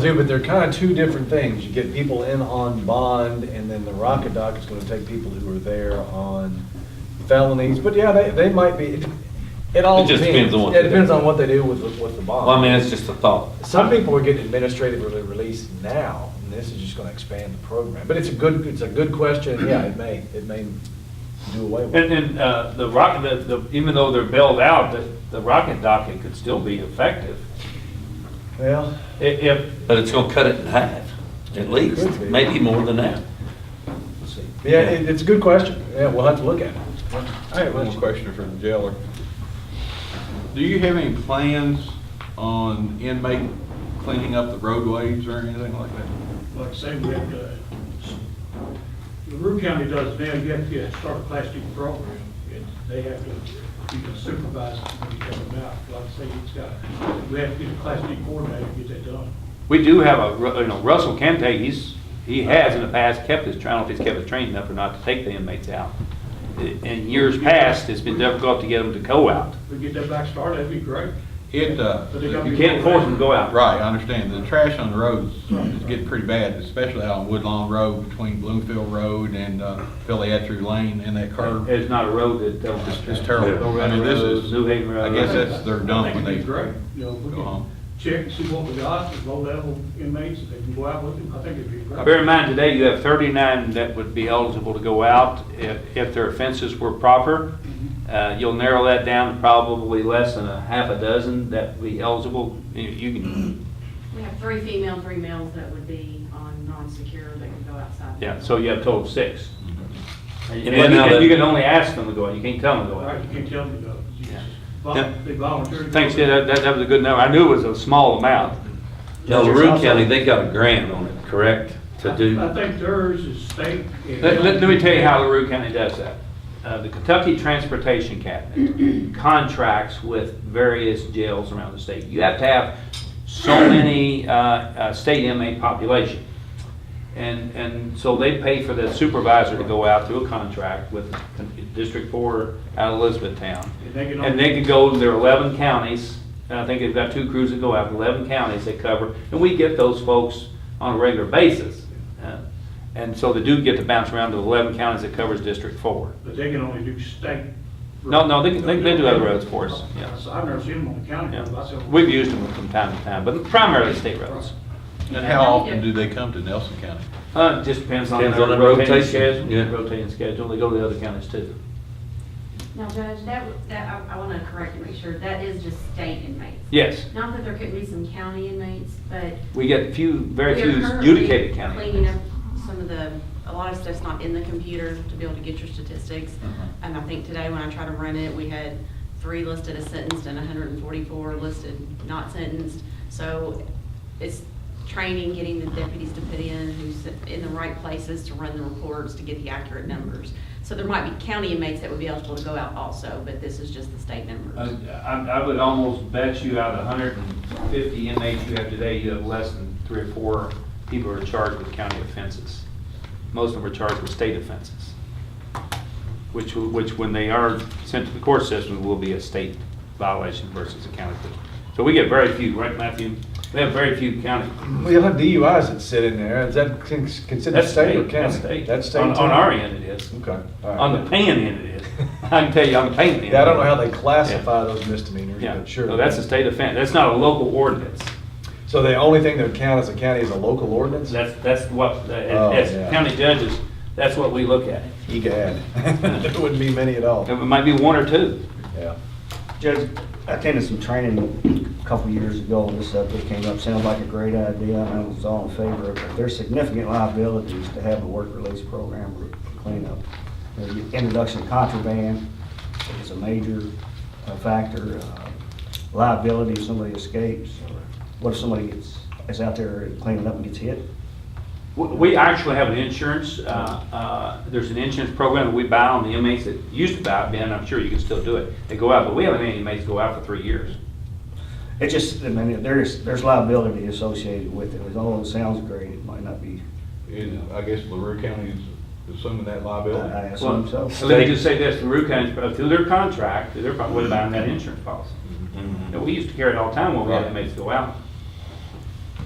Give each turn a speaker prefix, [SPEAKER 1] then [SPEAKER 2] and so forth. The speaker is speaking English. [SPEAKER 1] do, but they're kind of two different things. You get people in on bond, and then the Rocket Dock is going to take people who are there on felonies. But yeah, they, they might be, it- it all
[SPEAKER 2] It just
[SPEAKER 1] depends.
[SPEAKER 2] depends on
[SPEAKER 1] Yeah,
[SPEAKER 2] what
[SPEAKER 1] It
[SPEAKER 2] they do.
[SPEAKER 1] depends on what they do with, the- with the bond.
[SPEAKER 2] Well, I mean, it's just a thought.
[SPEAKER 1] Some people are getting administratively released now, and this is just going to expand the program. But it's a good, it's a good question, and yeah, it may, it may do away with it.
[SPEAKER 3] And, and, uh, the rock, the, the, even though they're bailed out, the, the rocket docket could still be effective.
[SPEAKER 1] Well,
[SPEAKER 3] I- If,
[SPEAKER 2] But it's gonna cut it in half, at
[SPEAKER 1] Could
[SPEAKER 2] least,
[SPEAKER 1] be.
[SPEAKER 2] maybe more than that.
[SPEAKER 1] yeah, it, it's a good question. Yeah, we'll have to look at it.
[SPEAKER 4] I have one question for the jailer. Do you have any plans on inmate cleaning up the roadways or anything like that?
[SPEAKER 5] like I say, we have to, the Rue County does now, you have to start a plastic program, and they have to, you can supervise when you come out. Like I say, it's got, we have to get a plastic coordinator to get that done.
[SPEAKER 3] we do have a, Ru- you know, Russell Kente, he's, he has in the past kept his, I don't know if he's kept his trained enough or not to take the inmates out. I- In years past, it's been difficult to get them to go out.
[SPEAKER 5] If we get that back started, that'd be great.
[SPEAKER 4] It, uh,
[SPEAKER 5] But they gotta
[SPEAKER 3] You can't force them to go out.
[SPEAKER 4] right, I understand, the trash on the roads is getting pretty bad, especially out on Woodlawn Road between Bloomfield Road and uh, Philly Etru Lane and that curve.
[SPEAKER 3] It's not a road that don't.
[SPEAKER 4] It's just terrible. I
[SPEAKER 3] Colorado
[SPEAKER 4] mean, this
[SPEAKER 3] Road,
[SPEAKER 4] is,
[SPEAKER 3] New Haven
[SPEAKER 4] I
[SPEAKER 3] Road.
[SPEAKER 4] guess that's their dump when
[SPEAKER 5] I think
[SPEAKER 4] they.
[SPEAKER 5] it'd be great, you know, if we
[SPEAKER 4] go home.
[SPEAKER 5] can check and see what we got, the low-level inmates, if they can go out with them, I think it'd be great.
[SPEAKER 3] Bear in mind, today you have 39 that would be eligible to go out if, if their offenses were proper. Uh, You'll narrow that down to probably less than a half a dozen that would be eligible. You- You can,
[SPEAKER 6] We have three female, three males that would be on non-secure that could go outside.
[SPEAKER 3] yeah, so you have a total of six. And
[SPEAKER 2] And then now
[SPEAKER 3] and
[SPEAKER 2] that-
[SPEAKER 3] you can only ask them to go out, you can't tell them to go
[SPEAKER 5] All right,
[SPEAKER 3] out.
[SPEAKER 5] you can't tell them to go. You just vol-
[SPEAKER 3] Yeah.
[SPEAKER 5] They volunteer. to go.
[SPEAKER 3] Thanks, yeah, that, that- that was a good number. I knew it was a small amount.
[SPEAKER 2] Now, LaRue County, they got a grant on it, correct, to do?
[SPEAKER 5] I think theirs is state. and-
[SPEAKER 3] Let, let- let me tell you how LaRue County does that. Uh, the Kentucky Transportation Cabinet contracts with various jails around the state. You have to have so many, uh, uh, state inmate population. And, and so they pay for the supervisor to go out through a contract with District Four out of Elizabethtown.
[SPEAKER 5] And they can
[SPEAKER 3] And they could go to their eleven counties, and I think they've got two crews that go out, eleven counties they cover, and we get those folks on a regular basis. Uh, And so they do get to bounce around to the eleven counties that covers District Four.
[SPEAKER 5] But they can only do state.
[SPEAKER 3] No, no, they can- they- they do other roads for us, yeah.
[SPEAKER 5] So I've never seen them on the county. road. I
[SPEAKER 3] Yeah.
[SPEAKER 5] said,
[SPEAKER 3] We've used them from time to time, but primarily state roads.
[SPEAKER 4] And how often do they come to Nelson County?
[SPEAKER 3] Uh, it just depends on
[SPEAKER 2] Depends
[SPEAKER 3] their
[SPEAKER 2] on the
[SPEAKER 3] rotating
[SPEAKER 2] rotation,
[SPEAKER 3] schedule,
[SPEAKER 2] yeah.
[SPEAKER 3] rotating schedule, they go to the other counties too.
[SPEAKER 6] Now, Judge, that, w- that, I, I want to correct and make sure, that is just state inmates.
[SPEAKER 3] Yes,
[SPEAKER 6] Not that there couldn't be some county inmates, but.
[SPEAKER 3] we get few, very
[SPEAKER 6] we are
[SPEAKER 3] few
[SPEAKER 6] currently
[SPEAKER 3] adjudicated counties.
[SPEAKER 6] Cleaning up some of the, a lot of stuff's not in the computer to be able to get your statistics.
[SPEAKER 3] Mm-hmm.
[SPEAKER 6] And I think today when I tried to run it, we had three listed as sentenced and hundred and forty-four listed not sentenced. So it's training, getting the deputies to put in, who's in the right places to run the reports, to get the accurate numbers. So there might be county inmates that would be eligible to go out also, but this is just the state
[SPEAKER 3] I,
[SPEAKER 6] numbers.
[SPEAKER 3] I I would almost bet you out of hundred and fifty inmates you have today, you have less than three or four people who are charged with county offenses. Most of them are charged with state offenses, which, w- which when they are sent to the court system will be a state violation versus a county. thing. So we get very few, right Matthew? We have very few county.
[SPEAKER 1] Well, you'll have DUIs that sit in there. Is that con- considered
[SPEAKER 3] That's
[SPEAKER 1] state or
[SPEAKER 3] That's
[SPEAKER 1] county?
[SPEAKER 3] state.
[SPEAKER 1] That's state.
[SPEAKER 3] On,
[SPEAKER 1] too?
[SPEAKER 3] on our end it is.
[SPEAKER 1] Okay. all
[SPEAKER 3] On
[SPEAKER 1] right.
[SPEAKER 3] the paying end it is. I can tell you on the paying end.
[SPEAKER 1] Yeah, I don't know how they
[SPEAKER 3] it is.
[SPEAKER 1] classify those misdemeanors,
[SPEAKER 3] Yeah,
[SPEAKER 1] but sure.
[SPEAKER 3] no, that's a state offense. That's not a local ordinance.
[SPEAKER 1] So the only thing that would count as a county is a local ordinance?
[SPEAKER 3] That's, that's what, uh,
[SPEAKER 1] Oh,
[SPEAKER 3] as
[SPEAKER 1] yeah.
[SPEAKER 3] as county judges, that's what we look at.
[SPEAKER 1] Egad. There wouldn't be many at all.
[SPEAKER 3] It might be one or two.
[SPEAKER 1] Yeah.
[SPEAKER 7] Judge, I attended some training a couple years ago and this subject came up, sounded like a great idea, and I was all in favor of it. But There's significant liabilities to have a work release program or cleanup. The introduction of contraband is a major uh, factor. uh, Liability if somebody escapes, or what if somebody gets, is out there cleaning up and gets hit?
[SPEAKER 3] W- We actually have an insurance, uh, uh, there's an insurance program that we buy on the inmates that used to buy it, Ben, I'm sure you can still do it. They go out, but we haven't had any inmates go out for three years.
[SPEAKER 7] It just, I mean, there's, there's liability associated with it. Although it sounds great, it might not be,
[SPEAKER 4] Is, I guess LaRue County is assuming that
[SPEAKER 7] I
[SPEAKER 4] liability?
[SPEAKER 7] I
[SPEAKER 3] Well,
[SPEAKER 7] assume so.
[SPEAKER 3] Let me just say this, the Rue County, through their contract, they're probably buying that insurance policy.
[SPEAKER 2] Mhm.
[SPEAKER 3] And we used to carry it all the time when we had inmates go out.